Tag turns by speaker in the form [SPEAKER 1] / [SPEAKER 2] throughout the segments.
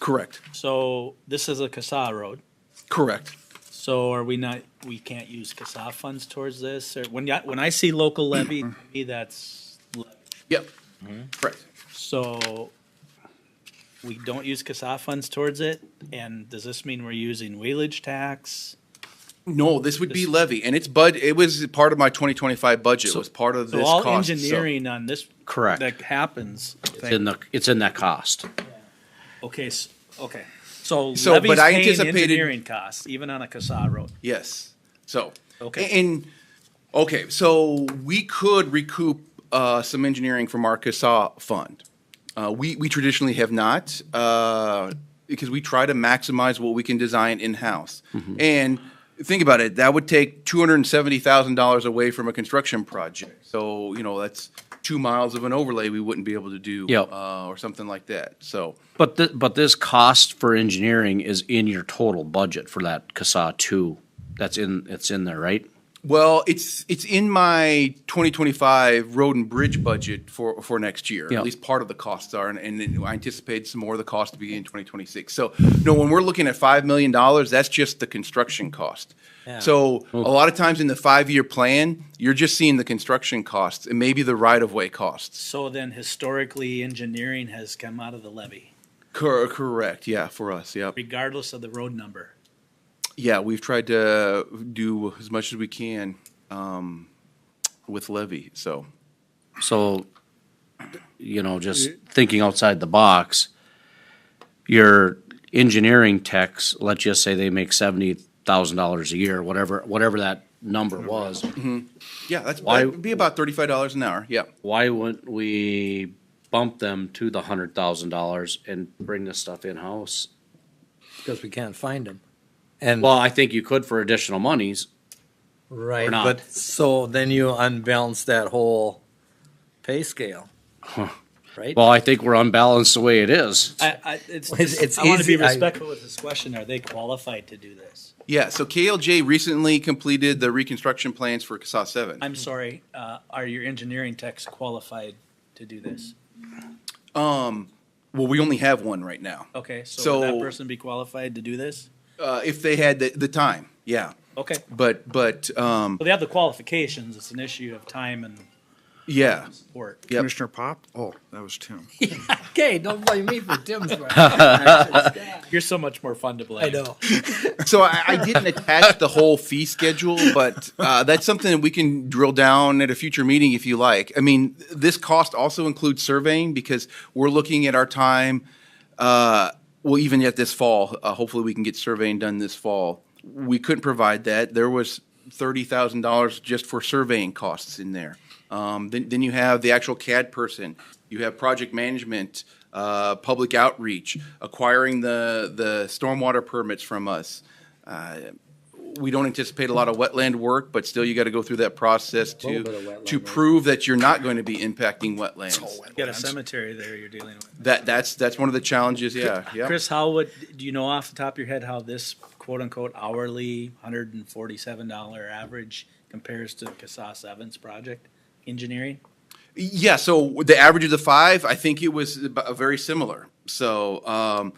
[SPEAKER 1] Correct,
[SPEAKER 2] So this is a CASA road.
[SPEAKER 1] correct.
[SPEAKER 2] So are we not, we can't use CASA funds towards this? Or when, ya- when I see local levy, to me, that's, le-
[SPEAKER 1] Yep, correct.
[SPEAKER 2] so we don't use CASA funds towards it? And does this mean we're using wheelage tax?
[SPEAKER 1] No, this would be levy, and it's bud, it was part of my twenty twenty-five budget, it was part of
[SPEAKER 2] So
[SPEAKER 1] this
[SPEAKER 2] all
[SPEAKER 1] cost. so-
[SPEAKER 2] engineering on this.
[SPEAKER 3] Correct.
[SPEAKER 2] That happens.
[SPEAKER 3] It's in the, it's in that cost.
[SPEAKER 2] Okay, s- okay. So
[SPEAKER 1] So,
[SPEAKER 2] levy's
[SPEAKER 1] but I
[SPEAKER 2] paying
[SPEAKER 1] anticipated-
[SPEAKER 2] engineering costs, even on a CASA road.
[SPEAKER 1] Yes, so.
[SPEAKER 2] Okay.
[SPEAKER 1] And, okay, so we could recoup, uh, some engineering from our CASA fund. Uh, we, we traditionally have not, uh, because we try to maximize what we can design in-house. And think about it, that would take two hundred and seventy thousand dollars away from a construction project. So, you know, that's two miles of an overlay we wouldn't be able to do.
[SPEAKER 3] Yep.
[SPEAKER 1] Uh, or something like that, so.
[SPEAKER 3] But thi- but this cost for engineering is in your total budget for that CASA two. That's in, it's in there, right?
[SPEAKER 1] Well, it's it's in my 2025 road and bridge budget for for next year.
[SPEAKER 3] Yeah.
[SPEAKER 1] At least part of the costs are, and, and then I anticipate some more of the cost to be in 2026. So, no, when we're looking at five million dollars, that's just the construction cost. So, a lot of times in the five-year plan, you're just seeing the construction costs and maybe the right-of-way costs.
[SPEAKER 2] So then historically, engineering has come out of the levy,
[SPEAKER 1] Cor- correct? Yeah, for us. Yep.
[SPEAKER 2] regardless of the road number.
[SPEAKER 1] Yeah, we've tried to do as much as we can um, with levy. So.
[SPEAKER 3] So, you know, just thinking outside the box, your engineering techs, let's just say they make seventy thousand dollars a year, whatever, whatever that number was.
[SPEAKER 1] Yeah, that's
[SPEAKER 3] Why-
[SPEAKER 1] that'd be about thirty-five dollars an hour. Yeah.
[SPEAKER 3] Why wouldn't we bump them to the hundred thousand dollars and bring this stuff in-house?
[SPEAKER 4] because we can't find them. And
[SPEAKER 3] Well, I think you could for additional monies,
[SPEAKER 4] right,
[SPEAKER 3] or not.
[SPEAKER 4] but so then you unbalance that whole pay scale, right?
[SPEAKER 3] Well, I think we're unbalanced the way it is.
[SPEAKER 2] I, I, it's,
[SPEAKER 4] Well, it's- it's
[SPEAKER 2] I want to be
[SPEAKER 4] easy, I-
[SPEAKER 2] respectful with this question. Are they qualified to do this?
[SPEAKER 1] Yeah, so KLJ recently completed the reconstruction plans for CASA seven.
[SPEAKER 2] I'm sorry, uh, are your engineering techs qualified to do this?
[SPEAKER 1] Um, Well, we only have one right now.
[SPEAKER 2] Okay, so
[SPEAKER 1] So-
[SPEAKER 2] would that person be qualified to do this?
[SPEAKER 1] Uh, if they had the, the time, yeah.
[SPEAKER 2] Okay,
[SPEAKER 1] But, but, um,
[SPEAKER 2] well, they have the qualifications. It's an issue of time and
[SPEAKER 1] yeah,
[SPEAKER 2] support.
[SPEAKER 1] Yep.
[SPEAKER 5] Commissioner Pop? Oh, that was Tim.
[SPEAKER 4] okay, don't blame me for Tim's.
[SPEAKER 2] You're so much more fun to blame.
[SPEAKER 4] I know.
[SPEAKER 1] so I, I didn't attach the whole fee schedule, but uh, that's something that we can drill down at a future meeting if you like. I mean, this cost also includes surveying because we're looking at our time. Uh, well, even yet this fall, uh, hopefully we can get surveying done this fall. We couldn't provide that. There was thirty thousand dollars just for surveying costs in there. Um, then, then you have the actual CAD person. You have project management, uh, public outreach, acquiring the the stormwater permits from us. Uh, we don't anticipate a lot of wetland work, but still you got to go through that process to
[SPEAKER 4] bit of wetland
[SPEAKER 1] to
[SPEAKER 4] work.
[SPEAKER 1] prove that you're not going to be impacting wetlands.
[SPEAKER 2] You got a cemetery there you're dealing with.
[SPEAKER 1] That that's that's one of the challenges. Yeah, yeah.
[SPEAKER 2] Chris, how would, do you know off the top of your head how this quote-unquote hourly hundred and forty-seven dollar average compares to CASA seven's project engineering?
[SPEAKER 1] Yeah, so the average of the five, I think it was ab- very similar. So um,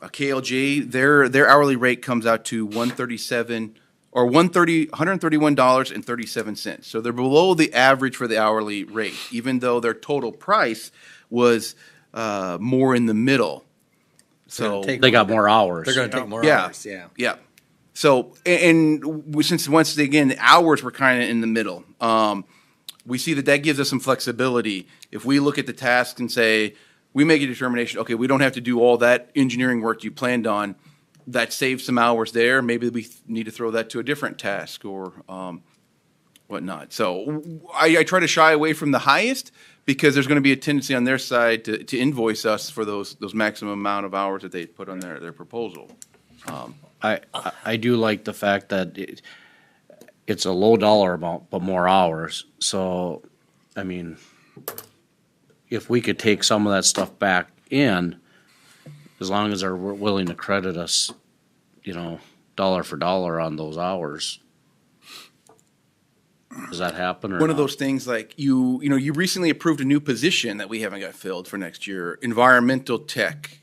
[SPEAKER 1] uh, KLJ, their their hourly rate comes out to one thirty seven or 130 dollars and thirty seven cents. So they're below the average for the hourly rate, even though their total price was uh, more in the middle. So
[SPEAKER 4] gonna take-
[SPEAKER 3] They got more hours.
[SPEAKER 4] They're going to take more
[SPEAKER 1] yeah,
[SPEAKER 4] hours. Yeah.
[SPEAKER 1] yeah. So a- and w- since once again the hours were kind of in the middle, um, we see that that gives us some flexibility. If we look at the task and say we make a determination, okay, we don't have to do all that engineering work you planned on. That saves some hours there. Maybe we th- need to throw that to a different task or um, whatnot. So w- I, I try to shy away from the highest because there's going to be a tendency on their side to, to invoice us for those those maximum amount of hours that they put on their, their proposal.
[SPEAKER 3] I, I- I do like the fact that it, it's a low dollar amount, but more hours. So, I mean, if we could take some of that stuff back in, as long as they're wi- willing to credit us, you know, dollar for dollar on those hours. Does that happen or
[SPEAKER 1] one of
[SPEAKER 3] not?
[SPEAKER 1] those things like you you know you recently approved a new position that we haven't got filled for next year environmental tech